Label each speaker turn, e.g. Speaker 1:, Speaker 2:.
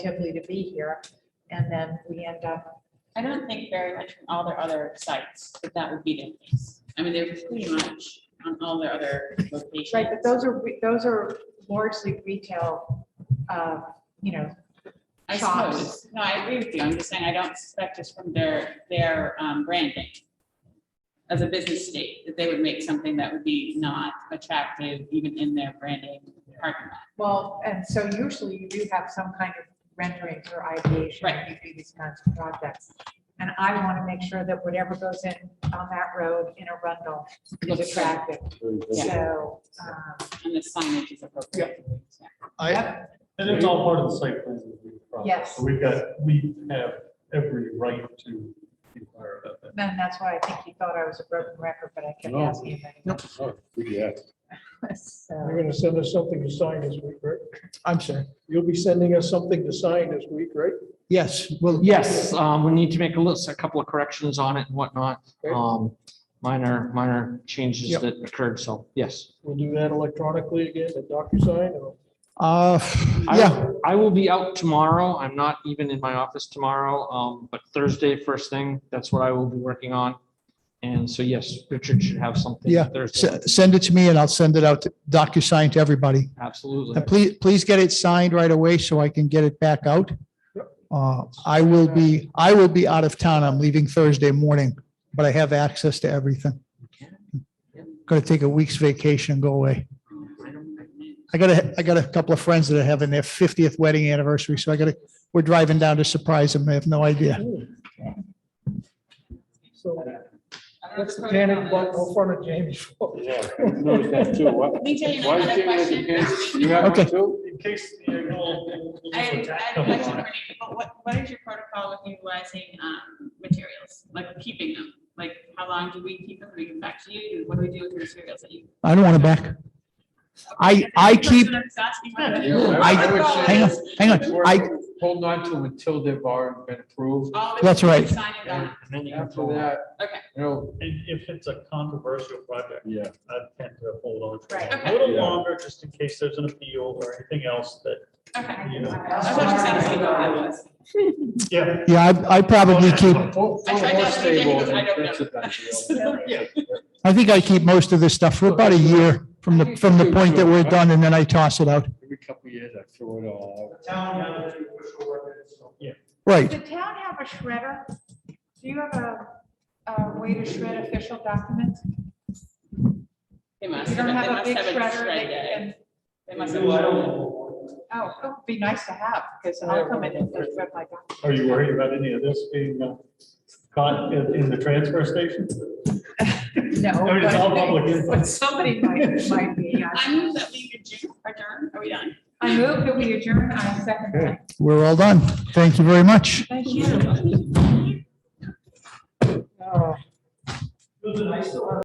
Speaker 1: relatively to be here. And then we end up,
Speaker 2: I don't think very much from all their other sites, that that would be the case. I mean, they're pretty much on all their other locations.
Speaker 1: right, but those are, re- those are largely retail, uh, you know,
Speaker 2: I
Speaker 1: shops.
Speaker 2: suppose, no, I agree with you, I'm just saying I don't suspect just from their, their um, branding as a business state, that they would make something that would be not attractive even in their branding parking lot.
Speaker 1: well, and so usually you do have some kind of renderings or ideation. when You do these kinds of projects. And I want to make sure that whatever goes in on that road in Arundel is
Speaker 2: Looks good.
Speaker 1: attractive. So, um,
Speaker 2: And the signage is appropriate. Yeah.
Speaker 3: I,
Speaker 4: And it's all part of the site plan review process.
Speaker 1: Yes.
Speaker 4: So we've got, we have every right to inquire about that.
Speaker 1: then that's why I think he thought I was a broken record, but I kept
Speaker 5: No.
Speaker 1: asking him anyway.
Speaker 5: Yeah.
Speaker 1: So,
Speaker 6: You're gonna send us something to sign this week, right?
Speaker 3: I'm sorry.
Speaker 6: You'll be sending us something to sign this week, right?
Speaker 3: Yes, well,
Speaker 5: Yes, um, we need to make a list, a couple of corrections on it and whatnot.
Speaker 6: Okay.
Speaker 5: Um, minor, minor changes
Speaker 3: Yep.
Speaker 5: that occurred, so yes.
Speaker 6: We'll do that electronically again, at DocuSign or?
Speaker 3: uh,
Speaker 5: I-
Speaker 3: yeah,
Speaker 5: I will be out tomorrow. I'm not even in my office tomorrow, um, but Thursday, first thing, that's what I will be working on. And so, yes, Richard should have something.
Speaker 3: Yeah,
Speaker 5: Thursday,
Speaker 3: s- send it to me and I'll send it out to DocuSign to everybody.
Speaker 5: absolutely.
Speaker 3: And please, please get it signed right away so I can get it back out. Uh, I will be, I will be out of town. I'm leaving Thursday morning, but I have access to everything. Gonna take a week's vacation, and go away.
Speaker 5: I don't recommend-
Speaker 3: I got a, I got a couple of friends that are having their fiftieth wedding anniversary, so I gotta, we're driving down to surprise them. They have no idea.
Speaker 6: So
Speaker 2: I don't know
Speaker 6: that's
Speaker 2: if
Speaker 6: the
Speaker 2: the
Speaker 6: panic
Speaker 2: protocol
Speaker 6: button in
Speaker 2: is-
Speaker 6: front of Jamie's phone.
Speaker 7: Yeah, I noticed that too. Why
Speaker 2: Let me tell you
Speaker 7: why
Speaker 2: another
Speaker 7: is Jamie with the
Speaker 2: question.
Speaker 7: kids? You have
Speaker 3: Okay.
Speaker 7: one too?
Speaker 4: In case, uh, you know.
Speaker 2: I had I had a question for you, but what, what is your protocol with utilizing um, materials, like keeping them? Like, how long do we keep them, bring them back to you, what do we do with the materials that you?
Speaker 3: I don't want it back. I, I keep,
Speaker 2: That's what I was asking about.
Speaker 7: Yeah,
Speaker 3: I-
Speaker 7: would say
Speaker 3: hang on, hang
Speaker 7: it's
Speaker 3: on.
Speaker 7: worth
Speaker 3: I,
Speaker 7: Holding on to until they've already been approved.
Speaker 2: All the
Speaker 3: That's right.
Speaker 2: sign it
Speaker 7: And
Speaker 2: on.
Speaker 7: then after that,
Speaker 2: Okay.
Speaker 7: you know.
Speaker 4: And if it's a controversial project,
Speaker 7: Yeah.
Speaker 4: I tend to hold on to it
Speaker 2: Right,
Speaker 4: a
Speaker 2: okay.
Speaker 4: little
Speaker 7: Yeah.
Speaker 4: longer, just in case there's an appeal or anything else that,
Speaker 2: Okay.
Speaker 4: you know.
Speaker 2: I thought you said something about that was.
Speaker 4: Yeah,
Speaker 3: yeah, I, I probably keep,
Speaker 7: Full,
Speaker 2: I
Speaker 7: full
Speaker 2: tried
Speaker 7: horse
Speaker 2: to ask you, Jamie,
Speaker 7: stable,
Speaker 2: because I don't
Speaker 7: that's a done deal.
Speaker 4: Yeah.
Speaker 3: I think I keep most of this stuff for about a year from the, from the point that we're done and then I toss it out.
Speaker 7: Every couple of years, I throw it all out.
Speaker 4: Yeah.
Speaker 3: Right.
Speaker 1: does the town have a shredder? Do you have a, a way to shred official documents?
Speaker 2: They must
Speaker 1: You
Speaker 2: have,
Speaker 1: don't
Speaker 2: they
Speaker 1: have a
Speaker 2: must
Speaker 1: big
Speaker 2: have it
Speaker 1: shredder that you
Speaker 2: shredded.
Speaker 1: can,
Speaker 2: They must have. shredded it.
Speaker 1: oh, it would be nice to have, because I'll come in and shred my documents.
Speaker 4: Are you worried about any of this being uh, caught in, in the transfer station?
Speaker 1: No.
Speaker 4: I mean, it's all public info.
Speaker 1: But somebody might, might be. I-
Speaker 2: I move that we adjourn, adjourn, are we done?
Speaker 1: I move that we adjourn, I second that.
Speaker 3: We're all done. Thank you very much.
Speaker 1: Thank you.